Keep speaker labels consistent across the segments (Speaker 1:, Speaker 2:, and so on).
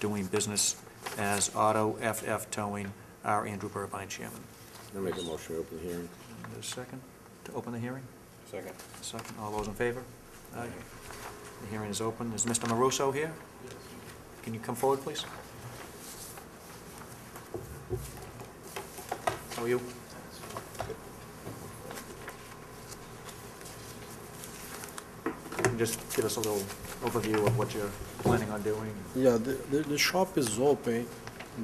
Speaker 1: doing business as Auto FF Towing, our Andrew Burbine Chairman.
Speaker 2: I'll make a motion to open the hearing.
Speaker 1: And a second to open the hearing?
Speaker 2: Second.
Speaker 1: Second, all those in favor? Aye. The hearing is open. Is Mr. Maruso here? Can you come forward, please? How are you? Can you Just give us a little overview of what you're planning on doing.
Speaker 3: Yeah, the, the, the shop is open,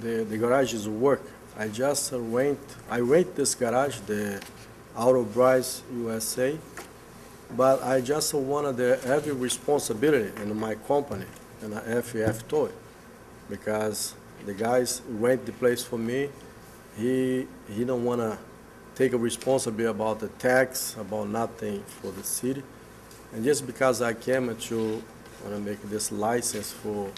Speaker 3: the, the garage is work. I just rent, I rent this garage, the Auto Bryce USA, but I just wanted the heavy responsibility in my company, in a FF Toy, because the guys rent the place for me. He, he don't wanna take a responsibility about the tax, about nothing for the city. And just because I came to, wanna make this license for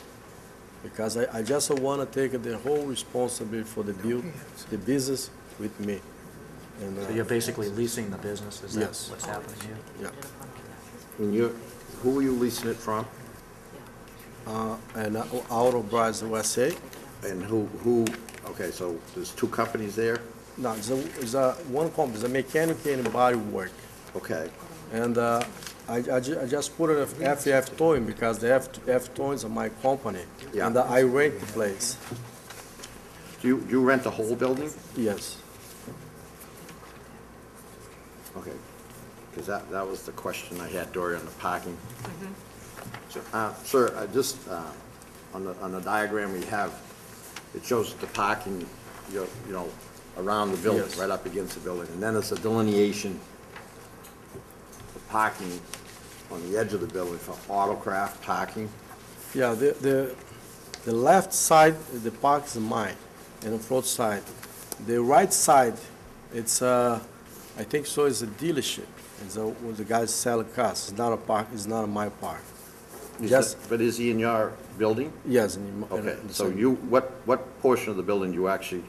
Speaker 3: because I, I just want to take the whole responsibility for the build, the business with me. And,
Speaker 1: So you're
Speaker 3: uh,
Speaker 1: basically leasing the business, is that
Speaker 3: Yes.
Speaker 1: what's happening here?
Speaker 3: yeah,
Speaker 2: And you, who are you leasing it from?
Speaker 3: uh, and uh, Auto Bras USA,
Speaker 2: And who, who, okay, so there's two companies there?
Speaker 3: no, it's a, it's a, one company, it's a mechanic and body work.
Speaker 2: Okay.
Speaker 3: And, uh, I, I ju- I just put it FF Towing because the F, F Towings are my company.
Speaker 2: Yeah.
Speaker 3: And uh, I rent the place,
Speaker 2: Do you, do you rent the whole building?
Speaker 3: yes.
Speaker 2: Okay. Because that, that was the question I had, Dory, on the parking. So, uh, Sir, I just, uh, on the, on the diagram we have, it shows the parking, you you know, around the building,
Speaker 3: Yes.
Speaker 2: right up against the building. And then it's a delineation of parking on the edge of the building for autocraft parking.
Speaker 3: Yeah, the, the, the left side, the park is mine, and the front side. The right side, it's, uh, I think so, is a dealership. It's a, where the guys sell cars, it's not a park, it's not my park.
Speaker 2: Is
Speaker 3: Yes.
Speaker 2: that- But is he in your building?
Speaker 3: Yes, and. in-
Speaker 2: Okay,
Speaker 3: in the
Speaker 2: so
Speaker 3: same-
Speaker 2: you, what, what portion of the building you actually,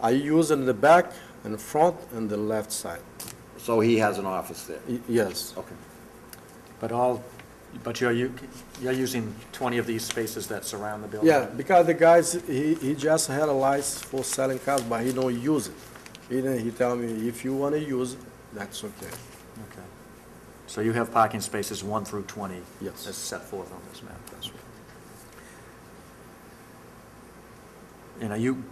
Speaker 3: I use in the back, and the front, and the left side,
Speaker 2: so he has an office there?
Speaker 3: Y- yes.
Speaker 2: Okay.
Speaker 1: But all, but you're, u- you're using 20 of these spaces that surround the building?
Speaker 3: Yeah, because the guys, he, he just had a license for selling cars, but he don't use it. He didn't, he tell me, if you wanna use it, that's okay.
Speaker 1: Okay. So you have parking spaces 1 through 20?
Speaker 3: Yes.
Speaker 1: As set forth on this map? That's right. And are you,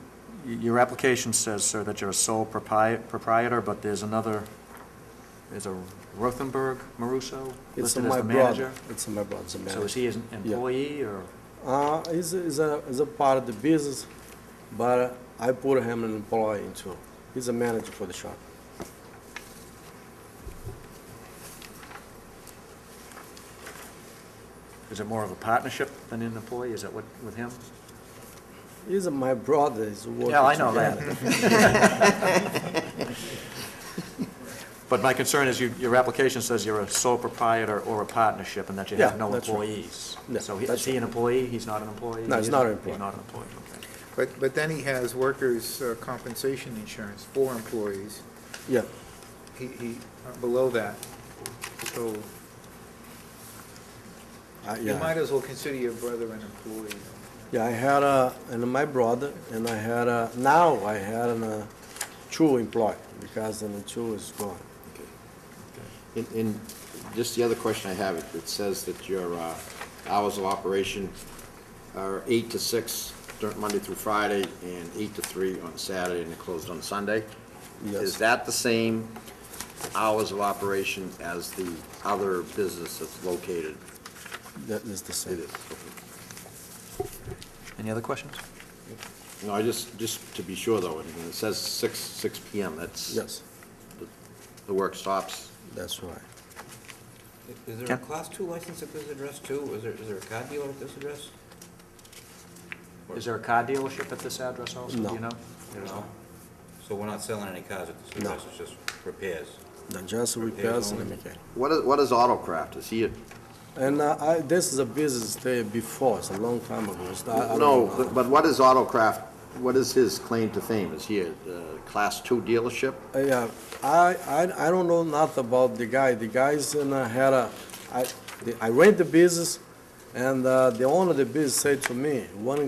Speaker 1: y- your application says, sir, that you're a sole propri- proprietor, but there's another, there's a Rothenberg Maruso
Speaker 3: It's
Speaker 1: listed as
Speaker 3: my
Speaker 1: the
Speaker 3: brother.
Speaker 1: manager?
Speaker 3: It's my brother, it's a manager.
Speaker 1: So is he an employee, or?
Speaker 3: Uh, is, is a, is a part of the business, but I put him an employee into. He's a manager for the shop.
Speaker 1: Is it more of a partnership than an employee? Is that what, with him?
Speaker 3: He's my brother, he's working
Speaker 1: Yeah, I know
Speaker 3: together.
Speaker 1: that. But my concern is you, your application says you're a sole proprietor or a partnership and that you have
Speaker 3: Yeah,
Speaker 1: no
Speaker 3: that's right.
Speaker 1: employees.
Speaker 3: Yeah,
Speaker 1: So he- is
Speaker 3: that's
Speaker 1: he an employee? He's not an employee?
Speaker 3: No, he's
Speaker 1: He
Speaker 3: not an
Speaker 1: isn't?
Speaker 3: employee.
Speaker 1: He's not an employee, okay.
Speaker 4: But, but then he has workers' uh, compensation insurance for employees.
Speaker 3: Yeah,
Speaker 4: He, he, uh, below that. So
Speaker 3: I,
Speaker 4: you might
Speaker 3: yeah.
Speaker 4: as well consider your brother an employee.
Speaker 3: Yeah, I had a, and my brother, and I had a, now I had an, uh, two employee, because the two is gone.
Speaker 2: And, and just the other question I have, it- it says that your uh, hours of operation are eight to six dur- Monday through Friday and eight to three on Saturday and they're closed on Sunday.
Speaker 3: Yes.
Speaker 2: Is that the same hours of operation as the other business that's located?
Speaker 3: That is the same.
Speaker 2: It is. okay.
Speaker 1: Any other questions?
Speaker 2: No, I just, just to be sure though, and it says six, six PM, that's.
Speaker 3: Yes,
Speaker 2: the- The work stops.
Speaker 3: that's right.
Speaker 5: Is there
Speaker 1: Yeah.
Speaker 5: a Class II license at this address too? Is there, is there a car dealer at this address?
Speaker 1: Is there a car dealership at this address also? Do
Speaker 3: No.
Speaker 1: you know? There is not.
Speaker 5: So we're not selling any cars at this
Speaker 3: No.
Speaker 5: address, it's just repairs?
Speaker 3: Then just repairs and mechanic.
Speaker 2: What is, what is Autocraft? Is he a?
Speaker 3: And uh, I, this is a business day before, it's a long time ago. It's not- I don't
Speaker 2: No,
Speaker 3: know.
Speaker 2: but- but what is Autocraft, what is his claim to fame? Is he a uh, Class Two dealership?
Speaker 3: Uh, Yeah, I, I, I don't know not about the guy. The guy's in a, had a, I, the- I rent the business, and uh, the owner of the business said to me, one